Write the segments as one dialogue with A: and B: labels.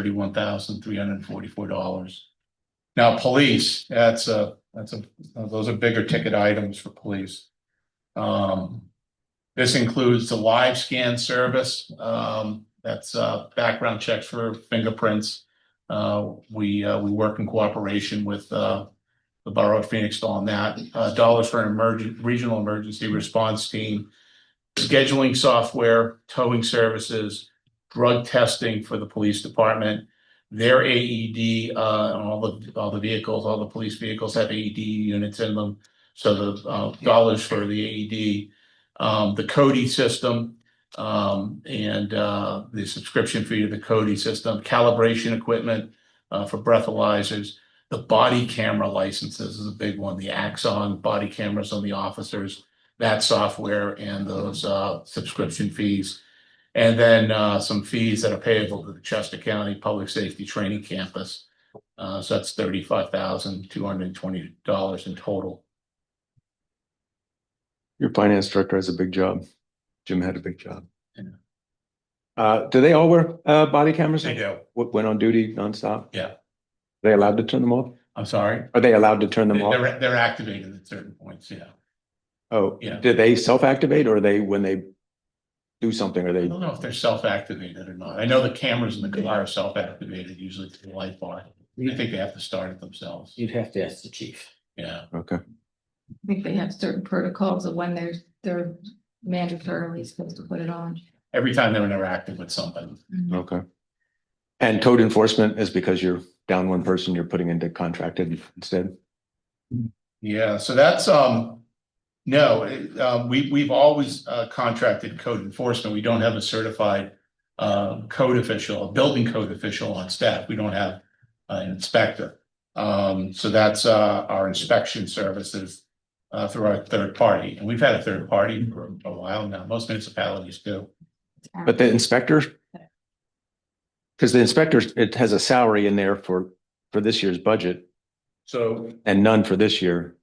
A: thirty-one thousand, three hundred and forty-four dollars. Now, police, that's a, that's a, those are bigger ticket items for police. Um, this includes the live scan service, um, that's, uh, background checks for fingerprints. Uh, we, uh, we work in cooperation with, uh, the Borough of Phoenix on that, uh, dollars for an emergent, regional emergency response team, scheduling software, towing services, drug testing for the police department. Their AED, uh, and all the, all the vehicles, all the police vehicles have AED units in them. So the, uh, dollars for the AED, um, the Cody system, um, and, uh, the subscription fee to the Cody system, calibration equipment, uh, for breathalyzers. The body camera licenses is a big one, the Axon body cameras on the officers, that software and those, uh, subscription fees. And then uh some fees that are payable to the Chester County Public Safety Training Campus. Uh, so that's thirty-five thousand, two hundred and twenty dollars in total.
B: Your finance director has a big job. Jim had a big job.
A: Yeah.
B: Uh, do they all wear, uh, body cameras?
A: do.
B: Wh- When on duty nonstop?
A: Yeah.
B: They allowed to turn them off?
A: I'm sorry.
B: Are they allowed to turn them off?
A: They're they're activated at certain points, yeah.
B: Oh,
A: Yeah.
B: do they self-activate or are they, when they do something, are
A: I
B: they?
A: don't know if they're self-activated or not. I know the cameras in the car are self-activated usually through the light bar. I think they have to start it themselves.
C: You'd have to ask the chief.
A: Yeah,
B: Okay,
D: I think they have certain protocols of when they're, they're mandatorily supposed to put it on.
A: every time they're interacting with somebody.
B: okay. And code enforcement is because you're down one person, you're putting into contracted instead?
A: Yeah, so that's, um, no, it, um, we, we've always, uh, contracted code enforcement. We don't have a certified, uh, code official, a building code official on staff. We don't have an inspector. Um, so that's, uh, our inspection services, uh, through our third party. And we've had a third party for a while now. Most municipalities do.
B: But the inspector? Because the inspector, it has a salary in there for, for this year's budget.
A: So
B: And none for this year.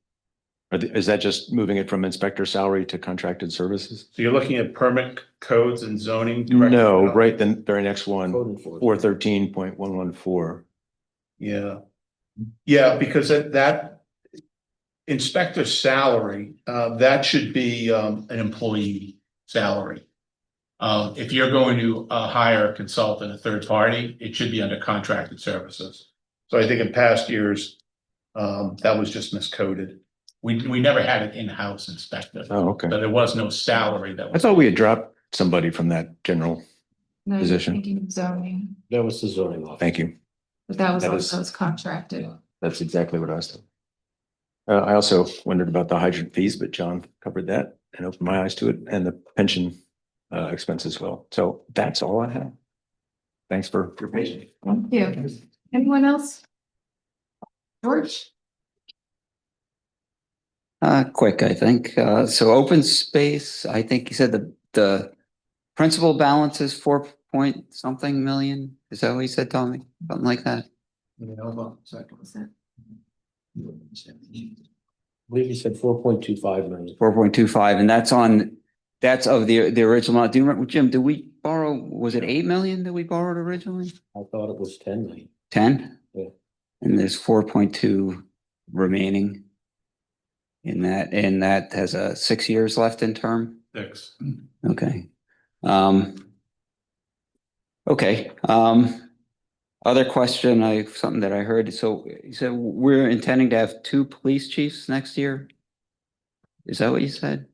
B: Are the- Is that just moving it from inspector salary to contracted services?
A: So you're looking at permit codes and zoning? director-
B: No, right, then very next one,
C: Code enforcement.
B: four thirteen point one one four.
A: Yeah. Yeah, because that, that inspector's salary, uh, that should be, um, an employee salary. Um, if you're going to, uh, hire a consultant, a third party, it should be under contracted services. So I think in past years, um, that was just miscoded. We, we never had an in-house inspector, so
B: Oh, okay.
A: there was no salary that
B: I
A: was.
B: thought we had dropped somebody from that general.
D: No, you're
B: Position.
D: thinking of zoning,
C: That was the zoning office.
B: Thank you.
D: but that was
B: That is-
D: also it's contracted.
B: That's exactly what I was. thinking. Uh, I also wondered about the hydrant fees, but John covered that and opened my eyes to it and the pension uh, expense as well. So that's all I have. Thanks for your patience.
D: Thank you. Anyone else? George?
E: Uh, quick, I think. Uh, so open space, I think you said the, the principal balance is four point something million. Is that what you said, Tommy? Something like that?
A: You know, so-
D: Was that-
C: I believe you said four point two five million.
E: Four point two five, and that's on, that's of the, the original amount. Do you remember, Jim, did we borrow, was it eight million that we borrowed originally?
C: I thought it was ten million.
E: Ten?
C: Yeah.
E: And there's four point two remaining in that, and that has uh six years left in term?
A: Six.
E: Okay. Um, okay, um, other question, I, something that I heard, so you said we're intending to have two police chiefs next year? Is that what you said?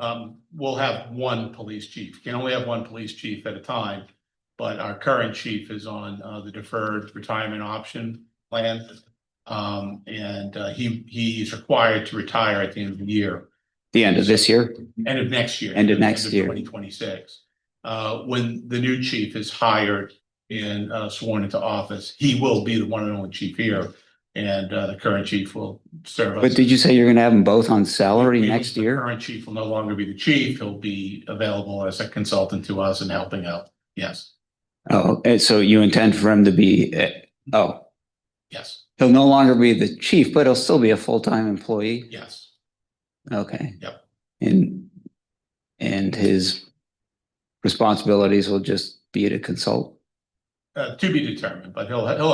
A: Um, we'll have one police chief. You can only have one police chief at a time. But our current chief is on, uh, the deferred retirement option plan. Um, and, uh, he, he is required to retire at the end of the year,
E: The end of this year?
A: end of next year.
E: End of next year.
A: Twenty twenty-six. Uh, when the new chief is hired and, uh, sworn into office, he will be the one and only chief here. And, uh, the current chief will serve.
E: But
A: us-
E: did you say you're gonna have them both on salary
A: we-
E: next
A: the
E: year?
A: Current chief will no longer be the chief. He'll be available as a consultant to us and helping out. Yes,
E: Oh, and so you intend for him to be, eh, oh,
A: yes,
E: he'll no longer be the chief, but he'll still be a full-time employee?
A: yes.
E: Okay.
A: Yep.
E: And, and his responsibilities will just be to consult?
A: uh, to be determined, but he'll, he'll